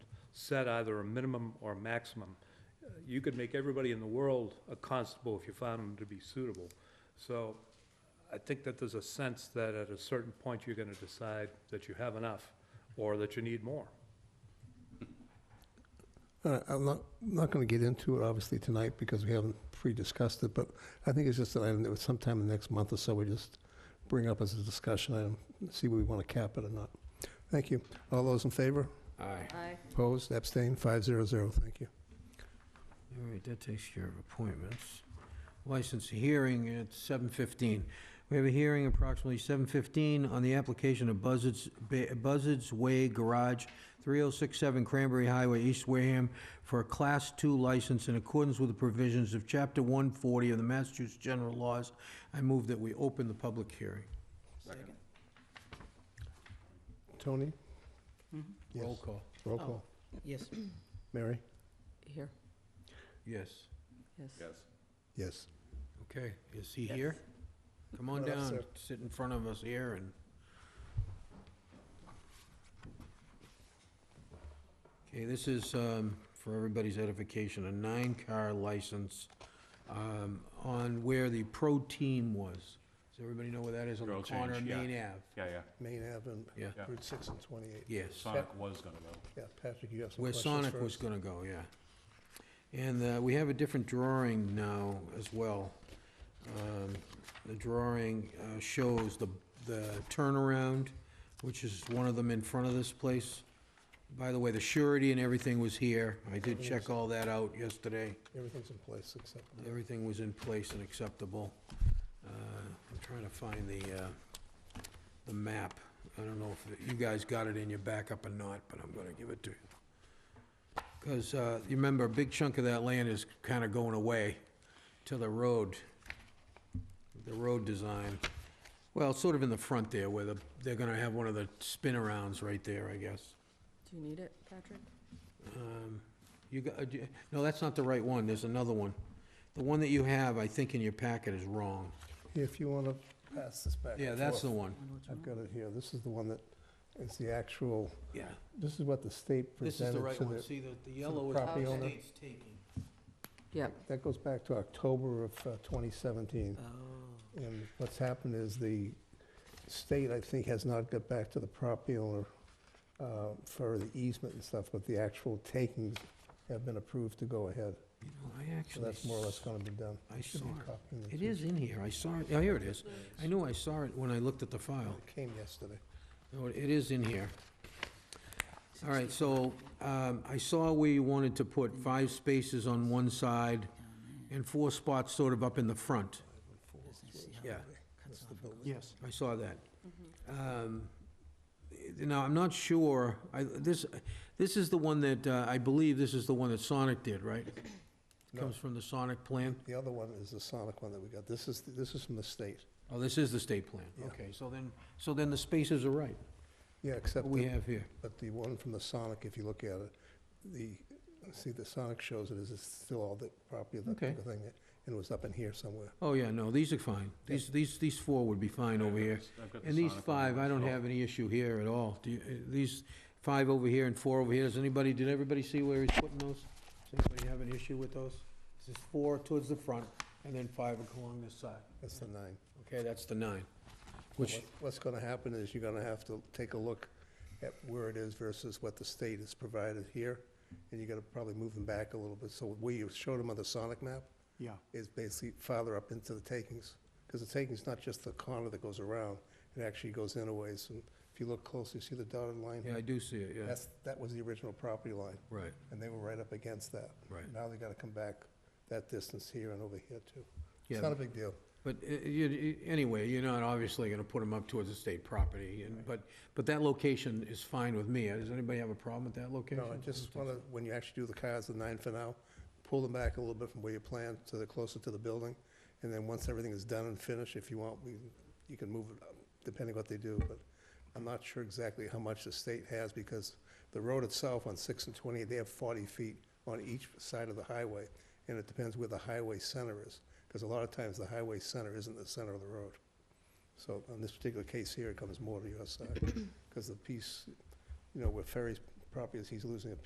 set either a minimum or maximum. Uh, You could make everybody in the world a constable if you found them to be suitable. So I think that there's a sense that at a certain point, you're gonna decide that you have enough, or that you need more. Uh, I'm not, not going to get into it, obviously, tonight, because we haven't pre-discussed it, but I think it's just an item that would sometime in the next month or so, we just bring up as a discussion item, see whether we want to cap it or not. Thank you. All those in favor? Aye. Aye. Opposed? Abstained? Five zero zero. Thank you. All right, that takes care of appointments. License hearing at 7:15. We have a hearing approximately 7:15 on the application of Buzzards, Ba- Buzzards Way Garage, 3067 Cranberry Highway, East Wareham, for a Class II license in accordance with the provisions of Chapter 140 of the Massachusetts General Laws. I move that we open the public hearing. Tony? Mhm. Yes. Roll call. Roll Oh. call. Yes. Mary? Here, Yes. yes. Yes. Okay, is he here? Come on Come on up, down, sir. sit in front of us here and... Okay, this is, um, for everybody's edification, a nine-car license, um, on where the pro team was. Does everybody know where that is on the Girl corner of change, yeah. Main Ave? Yeah, yeah. Main Ave and Yeah, Yeah. Route 6 and 28. yes. Sonic was gonna go. Yeah, Patrick, you have some Where questions Sonic was first. gonna go, yeah. And uh, we have a different drawing now as well. Um, The drawing uh, shows the, the turnaround, which is one of them in front of this place. By the way, the surety and everything was here. I did check all that out yesterday. Everything's in place except, Everything was in place and acceptable. Uh, I'm trying to find the, uh, the map. I don't know if you guys got it in your backup or not, but I'm gonna give it to you. Because you remember, a big chunk of that land is kind of going away to the road, the road design. Well, sort of in the front there, where the- they're gonna have one of the spin-arounds right there, I guess. Do you need it, Patrick? Um, You got, uh, do- no, that's not the right one, there's another one. The one that you have, I think in your packet is wrong. if you want to pass this back. Yeah, and that's the forth. one, I've got it here. This is the one that is the actual yeah. This is what the state This is presented the right to one, the, see, the, the yellow is property the owner? state's taking. Yep. that goes back to October of uh, 2017. Oh. And what's happened is the state, I think, has not got back to the property owner uh, for the easement and stuff, but the actual takings have been approved to go ahead. You know, I So actually. that's more or less going to be done. I It should be saw it. copied in the It two- is in here, I saw it, oh, here it is. I knew I saw it when I looked at the file. It came yesterday. No, it is in here. All right, so um, I saw where you wanted to put five spaces on one side and four spots sort of up in the front. Yeah. That's the building. Yes. I saw that. Um, Now, I'm not sure, I, this, this is the one that, uh, I believe this is the one that Sonic did, right? No. Comes from the Sonic plan? The other one is the Sonic one that we got. This is, this is from the state. Oh, this is the state plan. Yeah. Okay, so then, so then the spaces are right, Yeah, what except we that have here. But the one from the Sonic, if you look at it, the, see, the Sonic shows it as it's still all the property of that Okay. particular thing, and it was up in here somewhere. Oh, yeah, no, these are fine. These, these, these four would be fine over here. I've got the And these Sonic one Oh, five, I don't myself. have any issue here at all. Do you, uh, these five over here and four over here, does anybody, did everybody see where he's putting those? Does anybody have an issue with those? This is four towards the front, and then five along this side. That's the nine. Okay, that's the nine, But which, what- What's gonna happen is you're gonna have to take a look at where it is versus what the state has provided here, and you're gonna probably move them back a little bit. So where you showed them on the Sonic map Yeah, is basically farther up into the takings, because the takings not just the corner that goes around, it actually goes in a ways. And if you look closely, see the dotted line? yeah, I do see it, yeah. That's, that was the original property line. Right, and they were right up against that. right. Now they gotta come back that distance here and over here too. It's Yeah, not a big deal. but, uh, you, you- anyway, you're not obviously gonna put them up towards the state property, and, but, but that location is fine with me. Uh, Does anybody have a problem with that location? No, I just wanna, when you actually do the cars, the nine for now, pull them back a little bit from where you planned, so they're closer to the building. And then once everything is done and finished, if you want, we, you can move it, up, depending what they do, but I'm not sure exactly how much the state has, because the road itself on six and twenty, they have forty feet on each side of the highway, and it depends where the highway center is, because a lot of times the highway center isn't the center of the road. So on this particular case here, it comes more to your side, because the piece, you know, where Ferry's property is, he's losing a